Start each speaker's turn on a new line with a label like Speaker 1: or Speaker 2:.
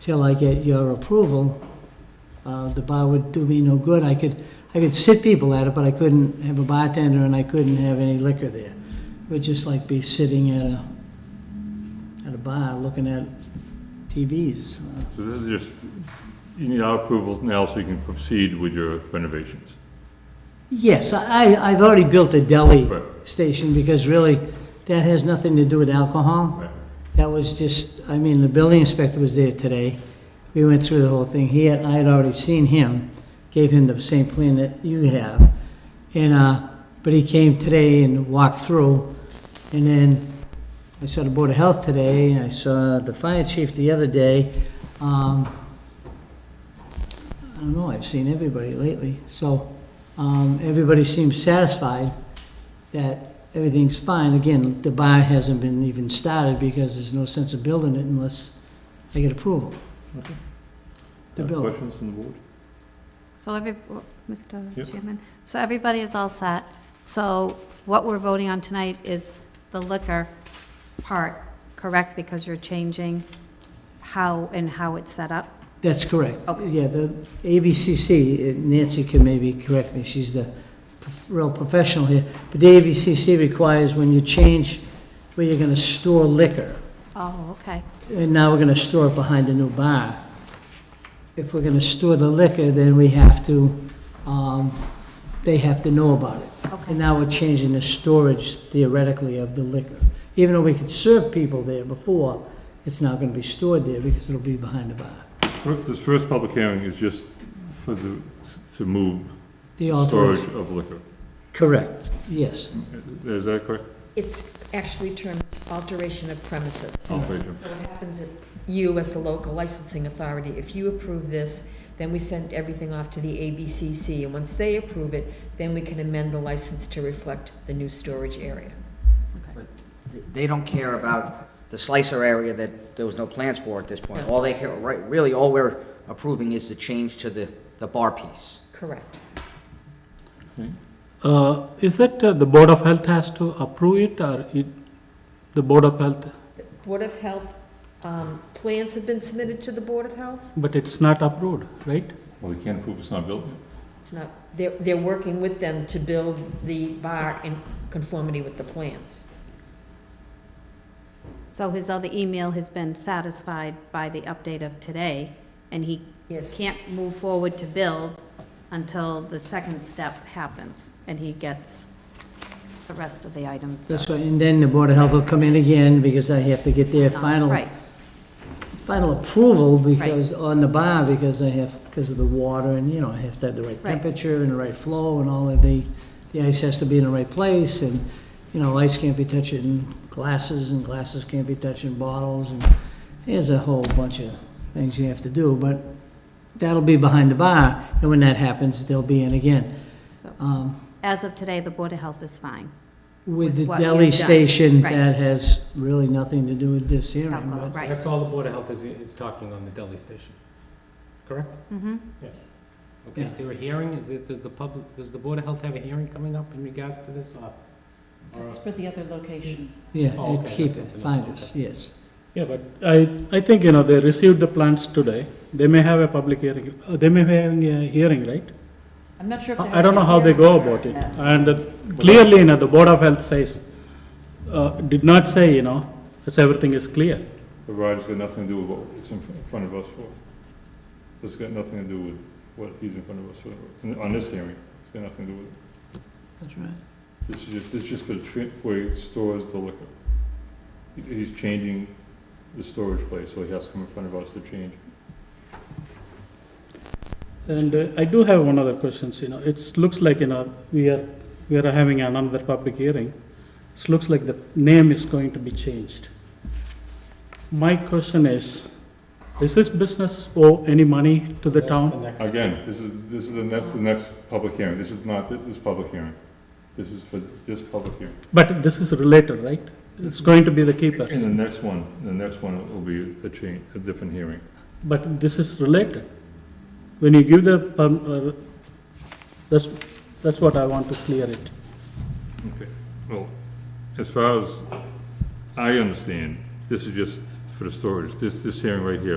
Speaker 1: till I get your approval, uh, the bar would do me no good. I could, I could sit people at it, but I couldn't have a bartender and I couldn't have any liquor there. It would just like be sitting at a, at a bar looking at TVs. Uh,
Speaker 2: So this is just, you need our approval now so you can proceed with your renovations.
Speaker 1: Yes, I, I've already built a deli
Speaker 2: Right.
Speaker 1: station because really, that has nothing to do with alcohol.
Speaker 2: Right.
Speaker 1: That was just, I mean, the building inspector was there today. We went through the whole thing. He had, I had already seen him, gave him the same plan that you have. And, uh, but he came today and walked through. And then I saw the Board of Health today, and I saw the fire chief the other day. Um, I don't know, I've seen everybody lately. So, um, everybody seems satisfied that everything's fine. Again, the bar hasn't been even started because there's no sense of building it unless I get approval.
Speaker 2: Okay.
Speaker 1: To
Speaker 2: Any
Speaker 1: build.
Speaker 2: Questions from the board?
Speaker 3: So every, Mr.
Speaker 2: Yes.
Speaker 3: Chairman, so everybody is all set. So what we're voting on tonight is the liquor part, correct? Because you're changing how and how it's set up?
Speaker 1: That's correct.
Speaker 3: Okay.
Speaker 1: Yeah, the ABCC, uh, Nancy can maybe correct me, she's the prof- real professional here, but the ABCC requires when you change where you're gonna store liquor,
Speaker 3: Oh, okay.
Speaker 1: and now we're gonna store it behind the new bar. If we're gonna store the liquor, then we have to, um, they have to know about it. And
Speaker 3: Okay,
Speaker 1: now we're changing the storage theoretically of the liquor. Even though we could serve people there before, it's now gonna be stored there because it'll be behind the bar.
Speaker 2: Fir- This first public hearing is just for the, to move
Speaker 1: The
Speaker 2: storage
Speaker 1: alteration.
Speaker 2: of liquor. Uh,
Speaker 1: Correct, yes.
Speaker 2: Is that correct?
Speaker 4: It's actually termed alteration of premises.
Speaker 5: Oh,
Speaker 4: So
Speaker 2: Alteration.
Speaker 4: what happens if you, as the local licensing authority, if you approve this, then we send everything off to the ABCC, and once they approve it, then we can amend the license to reflect the new storage area.
Speaker 6: They don't care about the slicer area that there was no plans for at this point. All they care, right, really, all we're approving is the change to the, the bar piece.
Speaker 4: Correct.
Speaker 5: Uh, Is that uh, the Board of Health has to approve it, or it, the Board of Health,
Speaker 4: Board of Health, um, plans have been submitted to the Board of Health.
Speaker 5: but it's not approved, right?
Speaker 2: Well, they can't approve it's not built yet.
Speaker 4: It's not, they're, they're working with them to build the bar in conformity with the plans.
Speaker 3: so his other email has been satisfied by the update of today, and he
Speaker 4: Yes.
Speaker 3: can't move forward to build until the second step happens, and he gets the rest of the items.
Speaker 1: That's right, and then the Board of Health will come in again because I have to get their
Speaker 3: done.
Speaker 1: final,
Speaker 3: Right,
Speaker 1: final approval because, on the bar, because I have, because of the water and, you know, I have to have the right
Speaker 3: Right.
Speaker 1: temperature and the right flow and all of the, the ice has to be in the right place and, you know, ice can't be touching glasses and glasses can't be touching bottles and there's a whole bunch of things you have to do, but that'll be behind the bar and when that happens, they'll be in again.
Speaker 3: so.
Speaker 1: Um,
Speaker 3: As of today, the Board of Health is fine.
Speaker 1: With the
Speaker 3: what
Speaker 1: deli
Speaker 3: we've done.
Speaker 1: station,
Speaker 3: Right.
Speaker 1: that has really nothing to do with this hearing,
Speaker 3: Alcohol,
Speaker 1: but,
Speaker 3: Right.
Speaker 7: That's all the Board of Health is, is talking on the deli station, correct?
Speaker 3: Mhm.
Speaker 7: Yes. Okay,
Speaker 1: Yeah.
Speaker 7: is there a hearing? Is it, does the public, does the Board of Health have a hearing coming up in regards to this, or? or-
Speaker 4: for the other location.
Speaker 1: yeah,
Speaker 7: Oh,
Speaker 1: it
Speaker 7: okay,
Speaker 1: keep
Speaker 7: that's
Speaker 1: it,
Speaker 7: something else,
Speaker 1: find us,
Speaker 7: okay.
Speaker 1: yes.
Speaker 5: Yeah, but I, I think, you know, they received the plans today. They may have a public hearing, uh, they may have a hearing, right?
Speaker 4: I'm not sure
Speaker 5: I I don't know how they go about it. And uh, clearly, you know, the Board of Health says, uh, did not say, you know, it's everything is clear.
Speaker 2: The rider's got nothing to do with what it's in fr- in front of us for. It's got nothing to do with what he's in front of us for, on this hearing. It's got nothing to do with it.
Speaker 1: That's right.
Speaker 2: This is just, this is just for the trip where it stores the liquor. He- He's changing the storage place, so he has to come in front of us to change.
Speaker 5: And uh, I do have one other question, you know, it's, looks like, you know, we are, we are having another public hearing. It looks like the name is going to be changed. My question is, does this business owe any money to the
Speaker 7: That's
Speaker 5: town?
Speaker 7: next-
Speaker 2: Again, this is, this is the next, the next public hearing. This is not thi- this public hearing. This is for this public hearing.
Speaker 5: But this is related, right? It's going to be the keeper,
Speaker 2: And the next one, the next one will be a change, a different hearing.
Speaker 5: but this is related. When you give the, perm- uh, that's, that's what I want to clear it.
Speaker 2: Okay, well, as far as I understand, this is just for the storage, this, this hearing right here